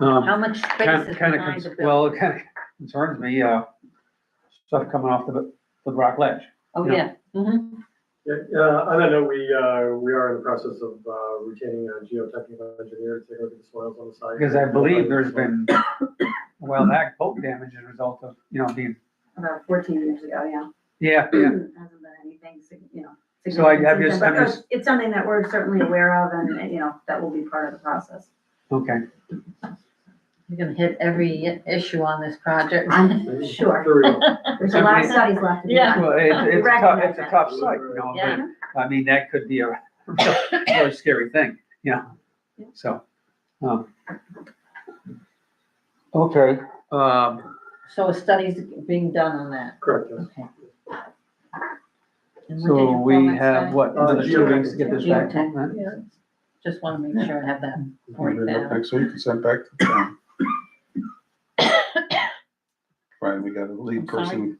Um, How much space kind is of, kind behind the of, building? well, it kind of concerns me, uh, stuff coming off the, the rock ledge. Oh, yeah. yeah, mhm, Yeah, uh, on that note, we, uh, we are in the process of, uh, retaining a geotechnical engineer to take a look at the soils on the site. Because I believe there's been, well, that boat damage as a result of, you know, being, about fourteen years ago, yeah. yeah, yeah. Hasn't been anything, sig- you know. So I- I've just- significant since then, I'm but just- It's something that we're certainly aware of and, and, you know, that will be part of the process. okay. you're gonna hit every i- issue on this project. I'm sure, There we go. there's a lot of studies left to be Yeah. done. Well, it, it's a tough, it's a tough Recognize that. site, you know, Yeah. but, I mean, that could be a really scary thing, yeah, so, um. Okay, um, So a study's being done on that, Correct, yes. okay. And we're so taking we format have study? what, Uh, another two weeks to get this back? Geotech. huh? Yeah. Just wanna make sure I have that Bring worked it up out. Next week and send back to the town. Right, we got a lead I'm sorry? person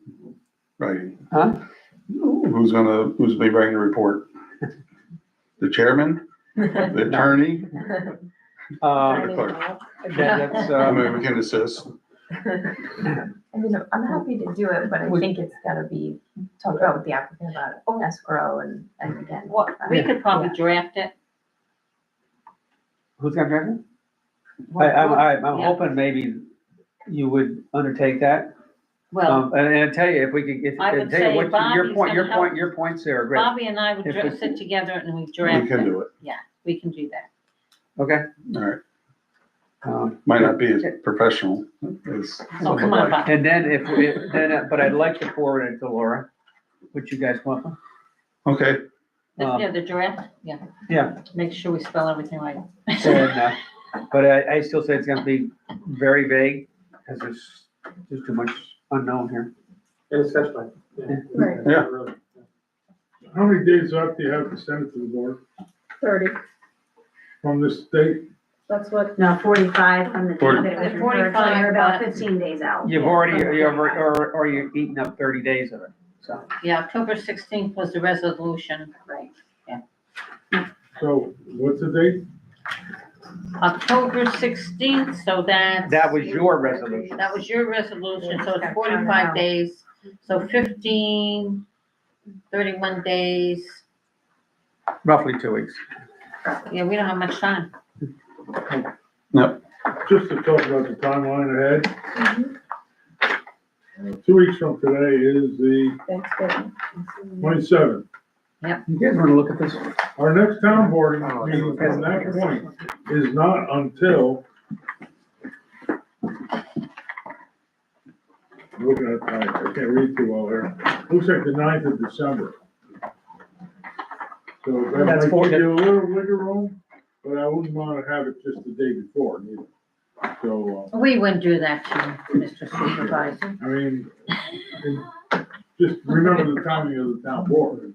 writing. Huh? Who's gonna, who's be writing the report? The chairman, the attorney, Um, the clerk. that- that's, I um, mean, we can assist. I mean, I'm happy to do it, but I We- think it's gotta be talked about with the applicant about own escrow and, and again. Well, we could probably draft it. who's gonna drive it? I, I'm, I'm- I'm Yeah. hoping maybe you would undertake that, Well, um, and, and I tell you, if we could, if, I would I tell say you what, your Bobby's point, your gonna help. point, your points there are great, Bobby and I would If dra- it's- sit together and we We draft can it, do it. we can do that. okay? All right. Um, Might not be as professional as. Oh, come on, Bobby. And then if, we- then, uh, but I'd like to forward it to Laura, would you guys want? one? Okay, Um, Yeah, the draft, yeah. Yeah. Make sure we spell everything right. And, uh, but I, I still say it's gonna be very vague, because there's just too much unknown here. And a sketch plan. yeah. Right. Yeah. Really. How many days off do you have to send it to the board Thirty, from this date? that's what. No, forty-five from the Forty. date that it was The referred, so 45, you're about but- fifteen days out. You've already, you're, or, or you're eating up thirty days of it, so. Yeah, October sixteenth was the resolution. Right. So what's the date? October sixteenth, so that's. That was your resolution. That was your resolution, so it's Yeah. forty-five days, so 15, 31 days. Roughly two weeks. Yeah, we don't have much time. Just to talk about the timeline ahead. Uh, Two weeks from today is the Thanksgiving. twenty-seventh. You guys wanna look at this? Our next town board meeting from that point is not until. Looking at, time, I can't read too well here. Looks like the 9th of December. So that That's might four give you a little wiggle room, but I wouldn't want to have it just the day before neither. So, We wouldn't do that to you, Mr. Supervisor. uh, I mean, and just remember the timing of the town board.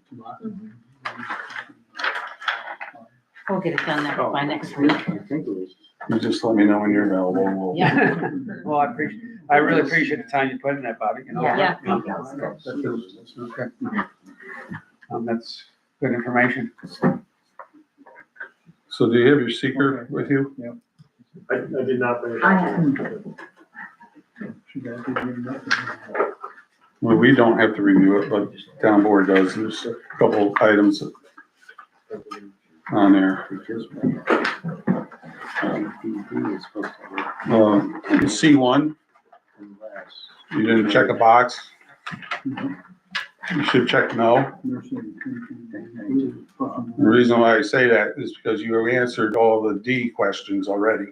We'll get it done that by next week. you just let me know when you're available. We'll Yeah. Well, I appreciate, I really appreciate the time you put in that, Bobby, you know? Yeah. You know, that's- that's- okay. Um, that's good information. So do you have your seeker with you? I, I did not bring it I up. Well, we don't have to review it, but town board does. There's a couple items on there. Uh, C one, you didn't check a box. You should check no. The reason why I say that is because you have answered all the D questions already.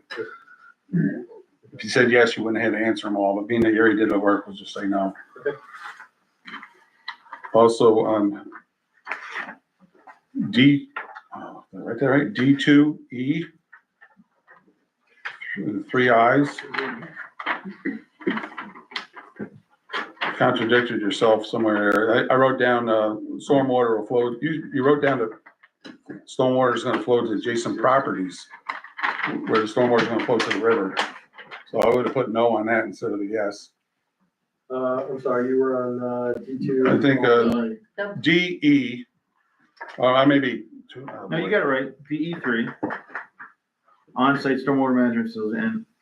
If you said yes, you wouldn't have had to answer them all, but being that you already did the work, we'll just say no. Also, on D, oh, right there, right, D two E. Three eyes. Contradicted yourself somewhere. there. I, I wrote down, uh, stormwater will flow, you, you wrote down that stormwater is gonna flow to adjacent properties where the stormwater is gonna flow to the river. So I would have put no on that instead of a yes. Uh, I'm sorry, you were on, uh, D two. I think, uh, Sorry. D E, oh, I may be. uh, No, you got it right, PE three. On-site stormwater management facilities and